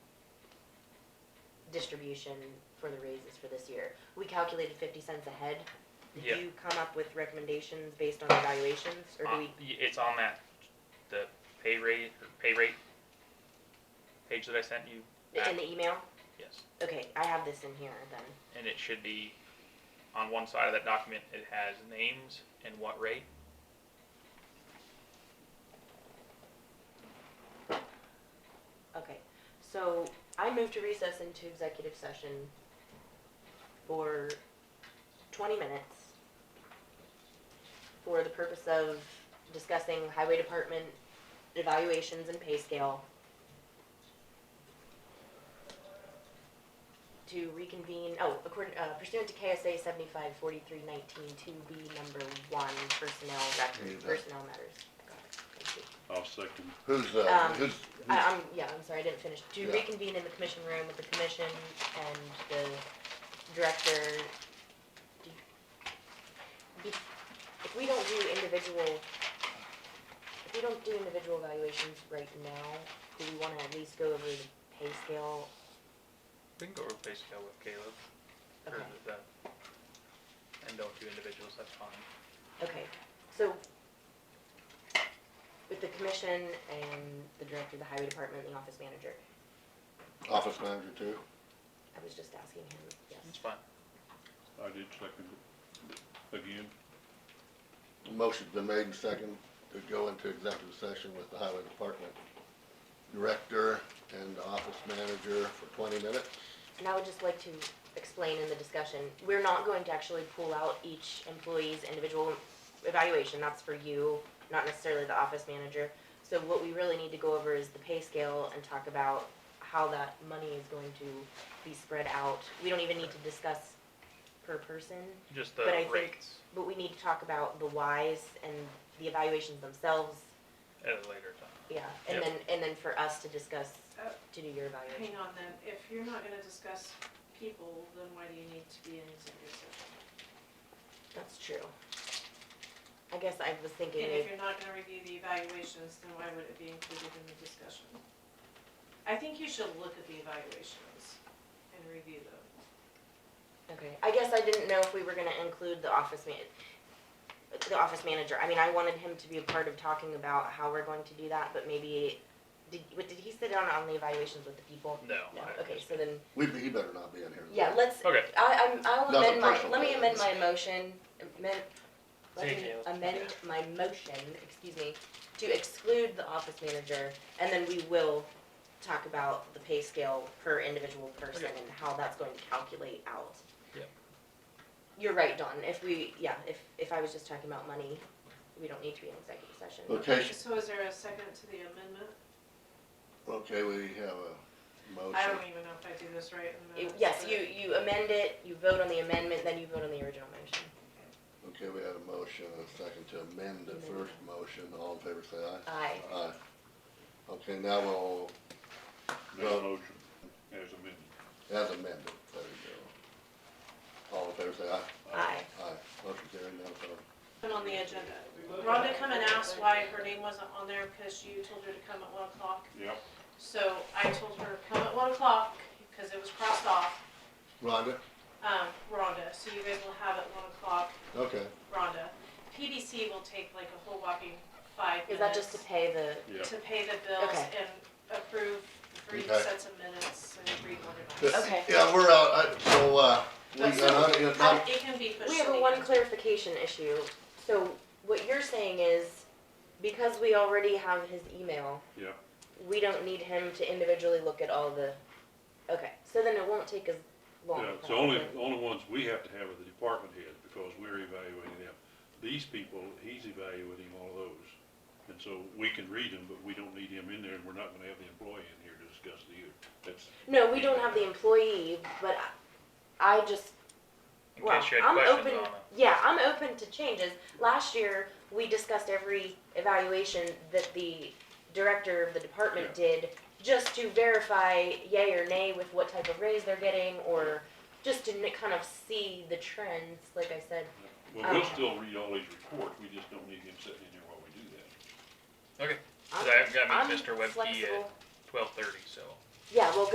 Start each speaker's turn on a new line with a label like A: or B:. A: distribution for the raises for this year. We calculated fifty cents a head. Did
B: Yeah.
A: you come up with recommendations based on evaluations, or
B: Uh,
A: do we,
B: y- It's on that, the pay rate, or pay rate page that I sent you.
A: in the email?
B: Yes,
A: Okay, I have this in here then.
B: and it should be, on one side of that document, it has names and what rate.
A: Okay, so I move to recess into executive session for twenty minutes for the purpose of discussing highway department evaluations and pay scale. To reconvene, oh, according, uh, pursuant to KSA seventy-five forty-three nineteen two B number one, personnel, rec-
C: Need that.
A: personnel matters. Got it. Thank you.
D: I'll second.
C: Who's, uh,
A: Um,
C: who's,
A: I, I'm, yeah, I'm sorry, I didn't finish. To
C: Yeah.
A: reconvene in the commission room with the commission and the director. Do- be- If we don't do individual, if we don't do individual evaluations right now, do we wanna at least go over the pay scale?
B: We can go over pay scale with Caleb, or
A: Okay,
B: with, uh, and don't do individuals, that's fine.
A: okay, so with the commission and the director, the highway department, the office manager,
C: office manager too?
A: I was just asking him, yes.
B: It's fine.
D: I did second it again.
C: Motion's been made and second to go into executive session with the highway department director and the office manager for twenty minutes.
A: And I would just like to explain in the discussion, we're not going to actually pull out each employee's individual evaluation, that's for you, not necessarily the office manager. So what we really need to go over is the pay scale and talk about how that money is going to be spread out. We don't even need to discuss per person,
B: Just
A: But I
B: the
A: think-
B: rates
A: but we need to talk about the whys and the evaluations themselves,
B: at a later time.
A: yeah. And
B: Yep.
A: then, and then for us to discuss,
E: Uh,
A: to do your evaluation.
E: Hang on then, if you're not gonna discuss people, then why do you need to be in executive session?
A: That's true. I guess I was thinking
E: And
A: maybe.
E: if you're not gonna review the evaluations, then why would it be included in the discussion? I think you should look at the evaluations and review them.
A: Okay, I guess I didn't know if we were gonna include the office ma- the office manager, I mean, I wanted him to be a part of talking about how we're going to do that, but maybe, did, what, did he sit down on the evaluations with the people?
B: No.
A: No,
B: I-
A: okay, so then,
C: We, he better not be in here.
A: yeah, let's,
B: Okay,
A: I, I'm, I'll
C: That was a
A: amend my,
C: personal
A: let me amend my
C: preference.
A: motion, amend, let
B: Thank
A: me
B: you.
A: amend my motion, excuse me, to exclude the office manager, and then we will talk about the pay scale per individual person
B: Okay.
A: and how that's going to calculate out.
B: Yep.
A: You're right, Dawn, if we, yeah, if, if I was just talking about money, we don't need to be in executive session.
C: Okay, sh-
E: So is there a second to the amendment?
C: okay, we have a
E: I
C: motion.
E: don't even know if I do this right in the
A: You-
E: minutes.
A: Oh, Yes,
E: but-
A: you, you amend it, you vote on the amendment, then you vote on the original motion.
C: Okay, we had a motion and a second to amend the first motion. All in favor, say aye.
A: Aye.
C: Aye. Okay, now we'll,
D: Make
C: Well-
D: a motion as amended.
C: as amended, there you go. All in favor, say aye.
A: Aye.
C: Aye. Motion carried, now it's on.
E: Put on the agenda. Rhonda come and asked why her name wasn't on there because you told her to come at one o'clock.
D: Yep,
E: So I told her, come at one o'clock, because it was crossed off.
C: Rhonda?
E: um, Rhonda, so you guys will have at one o'clock,
C: Okay.
E: Rhonda. PBC will take like a whole whopping five minutes.
A: Is that just to pay the,
D: yeah.
E: to pay the bills
A: Okay.
E: and approve three
C: Okay.
E: sets of minutes and reorganize.
C: Yeah,
A: Okay.
C: Yeah, we're out, I, so, uh, we,
E: But so,
C: uh, it's not-
E: It can be pushed.
A: We
E: to
A: have a
E: the
A: one
E: end.
A: clarification issue. So what you're saying is, because we already have his email.
D: Yeah.
A: We don't need him to individually look at all the, okay, so then it won't take as long.
D: Yeah, it's the only,
A: probably.
D: only ones we have to have are the department heads, because we're evaluating them. These people, he's evaluating all of those, and so we can read them, but we don't need him in there, and we're not gonna have the employee in here to discuss the, that's,
A: No, we don't have the employee, but I I just,
B: in
A: well,
B: case you had
A: I'm
B: questions
A: open,
B: on it.
A: yeah, I'm open to changes. Last year, we discussed every evaluation that the director of the department did, just to verify yay or nay with what type of raise they're getting, or just to n- kind of see the trends, like I said.
D: well, we'll
A: Okay.
D: still read all these reports, we just don't need him sitting in there while we do that.
B: Okay, 'cause
A: I'm-
B: I've got to
A: I'm
B: meet Mr. Webke at
A: flexible.
B: twelve thirty, so.
A: Yeah, well,